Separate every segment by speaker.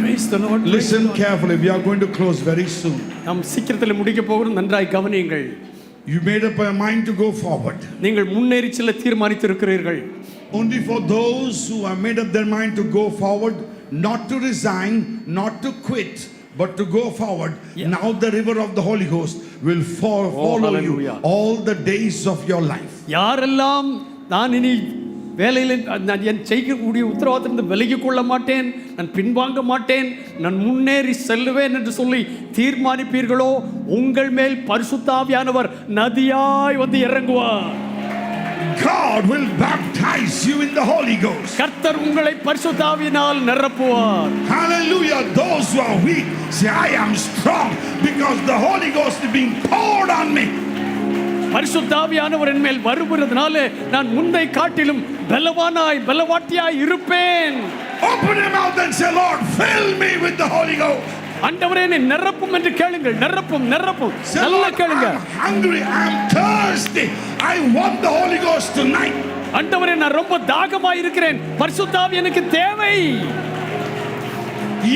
Speaker 1: Please the Lord. Praise the
Speaker 2: Listen
Speaker 1: Lord.
Speaker 2: carefully. We are going to close very soon.
Speaker 1: நாம் சீக்கிரத்தில் முடிக்க போகிறோம் நன்றாய் கவனியுங்கள்
Speaker 2: You made up your mind to go forward.
Speaker 1: நீங்கள் முன்னேறி செல்ல தீர்மானித்திருக்கிறீர்கள்
Speaker 2: Only for those who have made up their mind to go forward, not to resign, not to quit, but to go forward.
Speaker 1: Yeah. Oh,
Speaker 2: Now the river of the Holy Ghost will fo- follow you
Speaker 1: hallelujah.
Speaker 2: all the days of your life.
Speaker 1: யாரெல்லாம் நான் இனி வேலையில் நான் என் செய்யக்கூடிய உத்தரவாதத்திலிருந்து விலகிக் கொள்ள மாட்டேன் நான் பின்வாங்க மாட்டேன் நான் முன்னேறி செல்லுவேன் என்று சொல்லி தீர்மானிப்பீர்களோ உங்கள் மேல் பரிசுத்தாவியானவர் நதியாய் வந்து இறங்குவார்
Speaker 2: God will baptize you in the Holy Ghost.
Speaker 1: கர்த்தர் உங்களை பரிசுத்தாவியினால் நிரப்புவார்
Speaker 2: Hallelujah. Those who are weak say, I am strong because the Holy Ghost is being poured on me.
Speaker 1: பரிசுத்தாவியானவர் என் மேல் வருகிறதுனால நான் முந்தை காட்டிலும் பலவானாய் பலவாட்டியாய் இருப்பேன்
Speaker 2: Open your mouth and say, Lord, fill me with the Holy Ghost.
Speaker 1: ஆண்டவரே என்னை நிரப்பும் என்று கேளுங்கள் நிரப்பும் நிரப்பும்
Speaker 2: Say,
Speaker 1: நல்லா
Speaker 2: Lord,
Speaker 1: கேளுங்க
Speaker 2: I'm hungry. I'm thirsty. I want the Holy Ghost tonight.
Speaker 1: ஆண்டவரே நான் ரொம்ப தாகமா இருக்கிறேன் பரிசுத்தாவி எனக்கு தேவை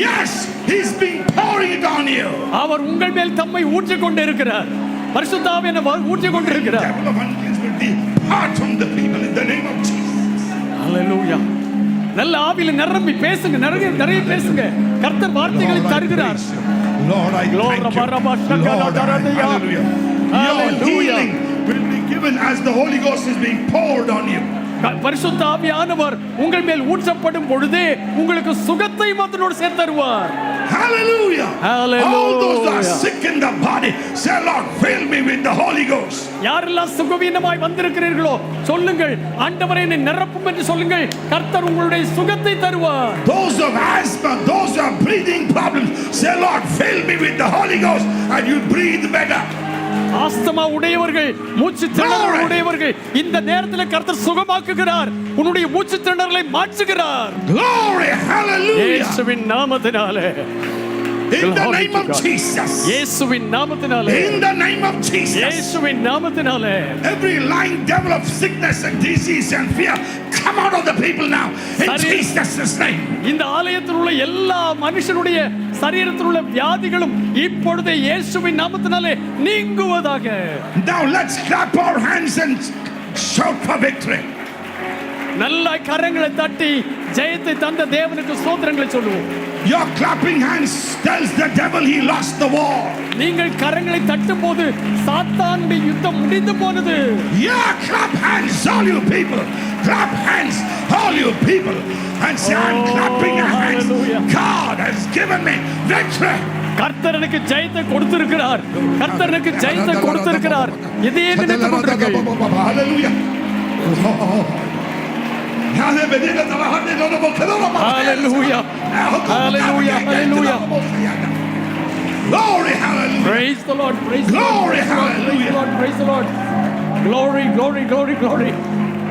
Speaker 2: Yes, He's been pouring it on you.
Speaker 1: அவர் உங்கள் மேல் தம்மை ஊற்றிக் கொண்டு இருக்கிறார் பரிசுத்தாவி என்னை வ- ஊற்றிக் கொண்டு
Speaker 2: The
Speaker 1: இருக்கிறார்
Speaker 2: devil of uncleanness will depart from the people in the name of Jesus.
Speaker 1: அல்லேலூயா நல்ல ஆவியில நிரம்பி பேசுங்க நிறைய நிறைய பேசுங்க கர்த்தர் வார்த்தைகளை
Speaker 2: Lord, I
Speaker 1: தருகிறார்
Speaker 2: praise you. Lord, I
Speaker 1: Glory
Speaker 2: thank you.
Speaker 1: Barabba Shaka
Speaker 2: Lord, I-
Speaker 1: Daradaya.
Speaker 2: hallelujah. Your
Speaker 1: Hallelujah.
Speaker 2: healing will be given as the Holy Ghost is being poured on you.
Speaker 1: க- பரிசுத்த ஆவியானவர் உங்கள் மேல் ஊற்றப்படும் பொழுது உங்களுக்கு சுகத்தை அதனோடு சேர்த்தருவார்
Speaker 2: Hallelujah.
Speaker 1: Hallelujah.
Speaker 2: All those that are sick in the body, say, Lord, fill me with the Holy Ghost.
Speaker 1: யாரெல்லாம் சுகவீனமாய் வந்திருக்கிறீர்களோ சொல்லுங்கள் ஆண்டவரை என்னை நிரப்பும் என்று சொல்லுங்கள் கர்த்தர் உங்களுடைய சுகத்தை தருவார்
Speaker 2: Those of asthma, those who have breathing problems, say, Lord, fill me with the Holy Ghost and you breathe better.
Speaker 1: Asthma உடையவர்கள் மூச்சு திணறல் உடையவர்கள் இந்த நேரத்தில் கர்த்தர் சுகமாக்குகிறார் உன்னுடைய மூச்சு திணறலை மாற்றுகிறார்
Speaker 2: Glory, hallelujah.
Speaker 1: இயேசுவின் நாமத்தினாலே
Speaker 2: In the
Speaker 1: Glory
Speaker 2: name
Speaker 1: to
Speaker 2: of
Speaker 1: God.
Speaker 2: Jesus.
Speaker 1: இயேசுவின் நாமத்தினாலே
Speaker 2: In the name of Jesus.
Speaker 1: இயேசுவின் நாமத்தினாலே
Speaker 2: Every lying devil of sickness and disease and fear, come out of the people now. In
Speaker 1: Sorry.
Speaker 2: Jesus' name.
Speaker 1: இந்த ஆலயத்தில் உள்ள எல்லா மனுஷனுடைய சரீரத்தில் உள்ள வியாதிகளும் இப்பொழுது இயேசுவின் நாமத்தினாலே நீங்குவதாக
Speaker 2: Now let's clap our hands and shout for victory.
Speaker 1: நல்ல கரங்களை தட்டி ஜெயத்தை தந்த தேவனுக்கு சோத்திரங்களை சொல்லுவோம்
Speaker 2: Your clapping hands tells the devil he lost the war.
Speaker 1: நீங்கள் கரங்களை தட்டும் போது சாத்தானுடைய யுத்தம் முடிந்து போனது
Speaker 2: Yeah, clap hands, all you people. Clap hands, all you people. And say, I'm
Speaker 1: Oh,
Speaker 2: clapping your hands.
Speaker 1: hallelujah.
Speaker 2: God has given me victory.
Speaker 1: கர்த்தரனுக்கு ஜெயத்தை கொடுத்திருக்கிறார் கர்த்தரனுக்கு ஜெயத்தை கொடுத்திருக்கிறார் இதையே நினைத்துக் கொண்டிருங்கள்
Speaker 2: Hallelujah.
Speaker 1: Hallelujah. Hallelujah. Hallelujah.
Speaker 2: Glory, hallelujah.
Speaker 1: Praise the Lord, praise the Lord,
Speaker 2: Glory,
Speaker 1: praise the
Speaker 2: hallelujah.
Speaker 1: Lord, praise the Lord. Glory, glory, glory, glory.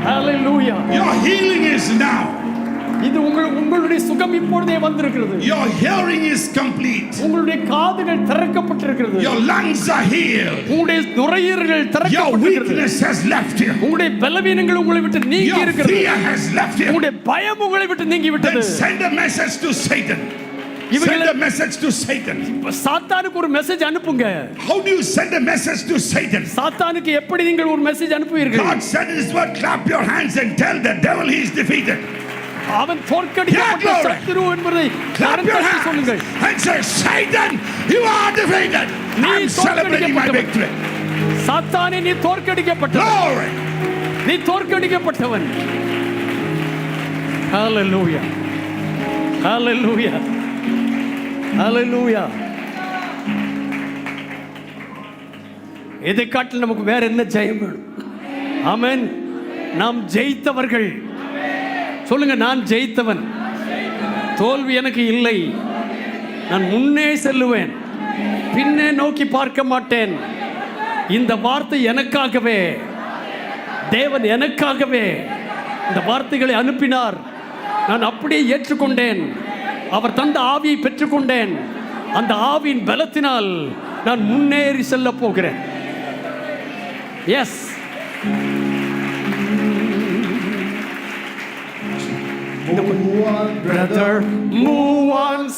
Speaker 1: Hallelujah.
Speaker 2: Your healing is now.
Speaker 1: இது உங்கள் உங்களுடைய சுகம் இப்பொழுதே வந்திருக்கிறது
Speaker 2: Your hearing is complete.
Speaker 1: உங்களுடைய காதுகள் திறக்கப்பட்டிருக்கிறது
Speaker 2: Your lungs are healed.
Speaker 1: உங்களுடைய நுரையீரல்கள்
Speaker 2: Your
Speaker 1: திறக்கப்பட்டிருக்கிறது
Speaker 2: weakness has left you.
Speaker 1: உங்களுடைய பலவீனங்கள் உங்களை விட்டு நீங்கி
Speaker 2: Your
Speaker 1: இருக்கிறது
Speaker 2: fear has left you.
Speaker 1: உங்களுடைய பயம் உங்களை விட்டு நீங்கி
Speaker 2: Then
Speaker 1: விட்டது
Speaker 2: send a message to Satan. Send
Speaker 1: இவங்களை
Speaker 2: a message to Satan.
Speaker 1: சாத்தானுக்கு ஒரு மெசேஜ் அனுப்புங்க
Speaker 2: How do you send a message to Satan?
Speaker 1: சாத்தானுக்கு எப்படி நீங்கள் ஒரு மெசேஜ் அனுப்புவீர்கள்
Speaker 2: God said in His word, clap your hands and tell the devil he is defeated.
Speaker 1: அவன் தோற்கடிக்கப்பட்ட
Speaker 2: Yeah, glory.
Speaker 1: சத்துரு என்பதை
Speaker 2: Clap
Speaker 1: கரம்
Speaker 2: your
Speaker 1: தட்டி
Speaker 2: hands
Speaker 1: சொல்லுங்கள்
Speaker 2: and say, Satan, you are defeated.
Speaker 1: நீ
Speaker 2: I'm celebrating my victory.
Speaker 1: சாத்தானே நீ தோற்கடிக்கப்பட்டவன்
Speaker 2: Glory.
Speaker 1: நீ தோற்கடிக்கப்பட்டவன் ஹalleluya ஹalleluya ஹalleluya இதை காட்டில் நமக்கு வேற என்ன ஜெயம் வேணும் ஆமென் நாம் ஜெயித்தவர்கள் சொல்லுங்க நான் ஜெயித்தவன் தோல்வி எனக்கு இல்லை நான் முன்னே செல்லுவேன் பின்னே நோக்கி பார்க்க மாட்டேன் இந்த வார்த்தை எனக்காகவே தேவன் எனக்காகவே இந்த வார்த்தைகளை அனுப்பினார் நான் அப்படியே ஏற்றுக்கொண்டேன் அவர் தந்த ஆவியை பெற்றுக்கொண்டேன் அந்த ஆவியின் பலத்தினால் நான் முன்னேறி செல்ல போகிறேன் எஸ்
Speaker 2: Brother.
Speaker 1: Move on